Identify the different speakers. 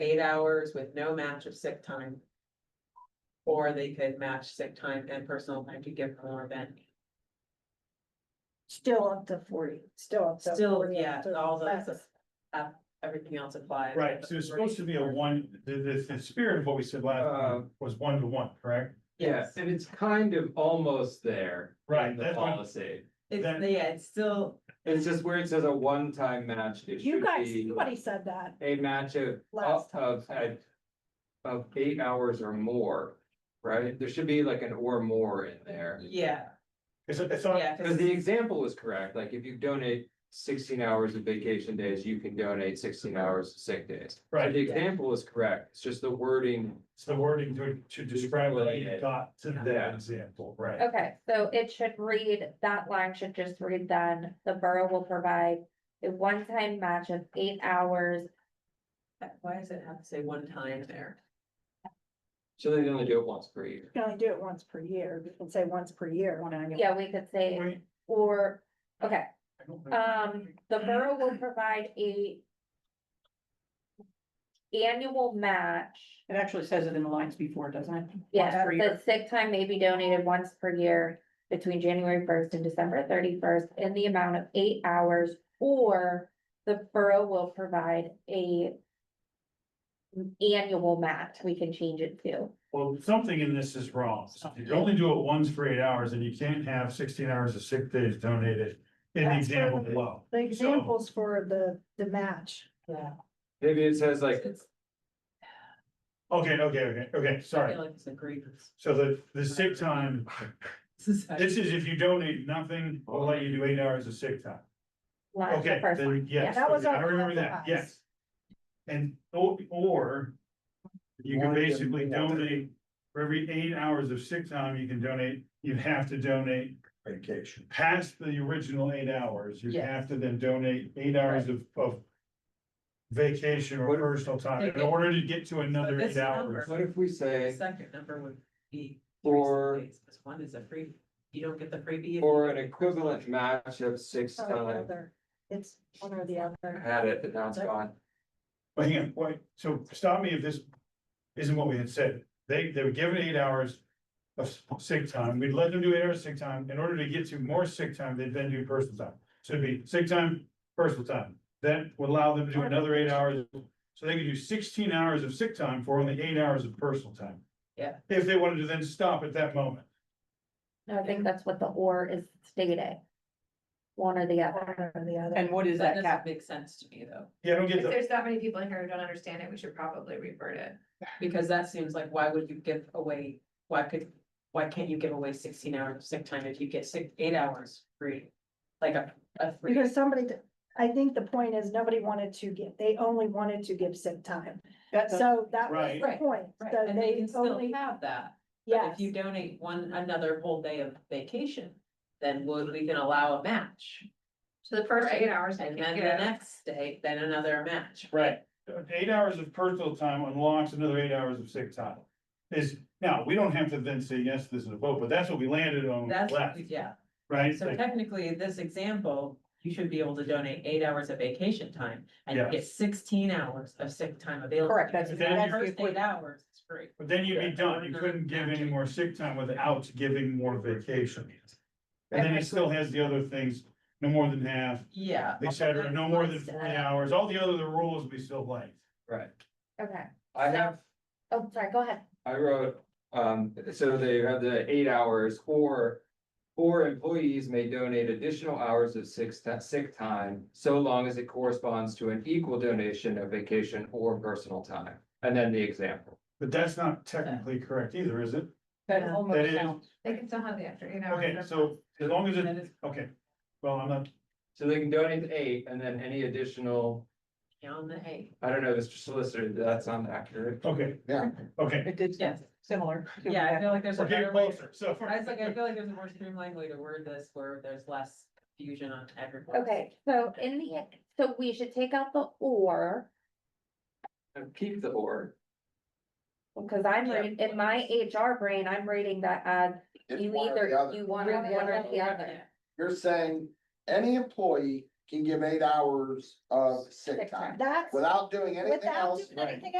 Speaker 1: eight hours with no match of sick time. Or they could match sick time and personal time to give more than,
Speaker 2: Still up to forty, still up to.
Speaker 1: still,
Speaker 2: 40,
Speaker 1: yeah,
Speaker 2: up to
Speaker 1: all those,
Speaker 2: less.
Speaker 1: uh, everything else applies.
Speaker 3: Right, so it's supposed to be a one, the, the, the spirit of what we said last
Speaker 4: Uh,
Speaker 3: time
Speaker 5: Um,
Speaker 3: was one to one, correct?
Speaker 4: Yeah,
Speaker 1: Yes,
Speaker 4: and it's kind of almost there.
Speaker 3: Right,
Speaker 4: in The
Speaker 3: that's what-
Speaker 4: policy,
Speaker 1: it's,
Speaker 3: Then-
Speaker 1: yeah, it's still,
Speaker 4: it's just where it says a one-time match, it
Speaker 2: You
Speaker 4: should
Speaker 2: guys,
Speaker 4: be
Speaker 2: somebody said that
Speaker 4: a match of,
Speaker 3: Oh,
Speaker 2: last time.
Speaker 4: of, of- of eight hours or more. Right, there should be like an or more in there,
Speaker 1: yeah,
Speaker 3: It's, it's not,
Speaker 1: yeah.
Speaker 4: because the example was correct, like if you donate sixteen hours of vacation days, you can donate sixteen hours of sick days. So
Speaker 3: right,
Speaker 4: The example is correct, it's just the wording,
Speaker 3: it's the wording to, to describe what you got to that
Speaker 4: Yeah.
Speaker 3: example, right?
Speaker 5: Okay, so it should read, that line should just read then, the borough will provide a one-time match of eight hours.
Speaker 1: Why does it have to say one time there?
Speaker 4: so they only do it once per year.
Speaker 2: You can only do it once per year, you can say once per year. on annual.
Speaker 5: Yeah, we could say,
Speaker 3: Wait,
Speaker 5: or, okay,
Speaker 3: I don't know.
Speaker 5: um, the borough will provide a annual match.
Speaker 6: It actually says it in the lines before, doesn't it?
Speaker 5: Yeah,
Speaker 6: Once per year.
Speaker 5: the sick time may be donated once per year between January first and December thirty-first in the amount of eight hours. Or the borough will provide a annual match, we can change it to.
Speaker 3: Well, something in this is wrong. If you only do it once for eight hours and you can't have sixteen hours of sick days donated in the
Speaker 2: That's
Speaker 3: example
Speaker 2: right.
Speaker 3: below.
Speaker 2: The
Speaker 3: So-
Speaker 2: examples for the, the match,
Speaker 1: Yeah.
Speaker 4: Maybe it says like
Speaker 1: It's,
Speaker 3: Okay, okay, okay, okay,
Speaker 1: I
Speaker 3: sorry.
Speaker 1: feel like it's a grievance.
Speaker 3: So the, the sick time,
Speaker 1: Society.
Speaker 3: this is if you donate nothing, we'll let you do eight hours of sick time.
Speaker 5: Line, the
Speaker 3: Okay,
Speaker 5: first
Speaker 3: then,
Speaker 5: line,
Speaker 3: yes,
Speaker 2: That was
Speaker 3: okay, I
Speaker 2: our
Speaker 3: remember that,
Speaker 2: compromise.
Speaker 3: yes. And, or, or you can
Speaker 7: One to
Speaker 3: basically
Speaker 7: more.
Speaker 3: donate, for every eight hours of sick time, you can donate, you have to donate
Speaker 7: vacation.
Speaker 3: past the original eight hours, you
Speaker 1: Yes.
Speaker 3: have to then donate eight hours of, of vacation or
Speaker 4: What-
Speaker 3: personal time in
Speaker 1: Okay.
Speaker 3: order to get to another
Speaker 1: this
Speaker 3: eight hours.
Speaker 1: number-
Speaker 4: What if we
Speaker 1: The
Speaker 4: say,
Speaker 1: Second number would be.
Speaker 4: or,
Speaker 1: Because one is a free, you don't get the freebie. if
Speaker 4: or
Speaker 1: you-
Speaker 4: an equivalent match of six
Speaker 5: Oh,
Speaker 2: or Oh, the
Speaker 4: times,
Speaker 2: other, it's one or the
Speaker 4: I
Speaker 2: other.
Speaker 4: had it, but now it's gone.
Speaker 3: But hang on, wait, so stop me if this isn't what we had said. They, they were given eight hours of s- sick time. We'd let them do eight hours of sick time. In order to get to more sick time, they'd then do personal time. So it'd be sick time, personal time. Then would allow them to do another eight hours. So they could do sixteen hours of sick time for only eight hours of personal time.
Speaker 1: Yeah.
Speaker 3: If they wanted to then stop at that moment.
Speaker 5: No, I think that's what the or is stating. One or the other.
Speaker 2: One or the other.
Speaker 6: And what is
Speaker 1: That
Speaker 6: that
Speaker 1: doesn't
Speaker 6: cap?
Speaker 1: make sense to me though,
Speaker 3: Yeah, I don't get
Speaker 8: If
Speaker 3: the,
Speaker 8: there's that many people in here who don't understand it, we should probably revert it.
Speaker 1: because that seems like, why would you give away, why could, why can't you give away sixteen hours of sick time if you get six, eight hours free? Like a, a free,
Speaker 2: Because somebody, I think the point is, nobody wanted to give, they only wanted to give sick time,
Speaker 6: That's
Speaker 2: so that was
Speaker 3: Right.
Speaker 2: the point.
Speaker 1: right,
Speaker 2: So
Speaker 1: and they
Speaker 2: they
Speaker 1: can still
Speaker 2: only,
Speaker 1: have that. But
Speaker 2: yes,
Speaker 1: if you donate one, another whole day of vacation, then would we can allow a match?
Speaker 8: So the first eight hours. they
Speaker 1: And
Speaker 8: can
Speaker 1: then the
Speaker 8: give.
Speaker 1: next day, then another match.
Speaker 3: right, eight hours of personal time unlocks another eight hours of sick time. Is, now, we don't have to then say, yes, this is a vote, but that's what we landed on
Speaker 1: That's,
Speaker 3: last.
Speaker 1: yeah,
Speaker 3: Right?
Speaker 1: so
Speaker 3: Like,
Speaker 1: technically, in this example, you should be able to donate eight hours of vacation time. And you
Speaker 3: Yes.
Speaker 1: get sixteen hours of sick time available.
Speaker 6: correct, that's.
Speaker 1: Because
Speaker 3: Then
Speaker 1: that
Speaker 6: that's
Speaker 1: first
Speaker 6: the
Speaker 1: eight hours is free.
Speaker 3: But then you'd be
Speaker 1: Yeah.
Speaker 3: done. You couldn't give any more sick time without giving more vacation. And then it still has the other things, no more than half,
Speaker 1: Yeah.
Speaker 3: et cetera, no more than forty hours, all the other rules we still like.
Speaker 4: Right.
Speaker 5: Okay,
Speaker 4: I
Speaker 5: So-
Speaker 4: have,
Speaker 5: oh, sorry, go ahead.
Speaker 4: I wrote, um, so they have the eight hours or. Or employees may donate additional hours of sick, ti- sick time, so long as it corresponds to an equal donation of vacation or personal time. And then the example.
Speaker 3: But that's not technically correct either, is it?
Speaker 6: That
Speaker 2: Yeah.
Speaker 3: That
Speaker 6: almost
Speaker 3: is-
Speaker 6: sounds,
Speaker 8: They can still have the after eight hours.
Speaker 3: Okay, so as long as it, okay, well, I'm not,
Speaker 4: So they can donate the eight and then any additional,
Speaker 1: On the eight,
Speaker 4: I don't know, Mr. Solicitor, that's not accurate.
Speaker 3: okay,
Speaker 7: Yeah.
Speaker 3: okay.
Speaker 6: it did sound
Speaker 1: Yes.
Speaker 6: similar. to
Speaker 1: yeah, I
Speaker 6: that.
Speaker 1: feel like there's a
Speaker 3: We're getting
Speaker 1: better way.
Speaker 3: closer, so.
Speaker 1: I was like, I feel like there's a more streamlined way to word this where there's less confusion on everyone.
Speaker 5: Okay, so in the, e, so we should take out the or,
Speaker 4: And Keep the or.
Speaker 5: because I'm reading, in my HR brain, I'm reading that as
Speaker 7: It's
Speaker 5: you
Speaker 7: one or the
Speaker 5: either,
Speaker 7: other.
Speaker 5: you want one or the other.
Speaker 7: You're saying any employee can give eight hours of
Speaker 5: Sick
Speaker 7: sick time
Speaker 2: that's
Speaker 7: without doing anything
Speaker 2: without
Speaker 7: else.
Speaker 2: doing anything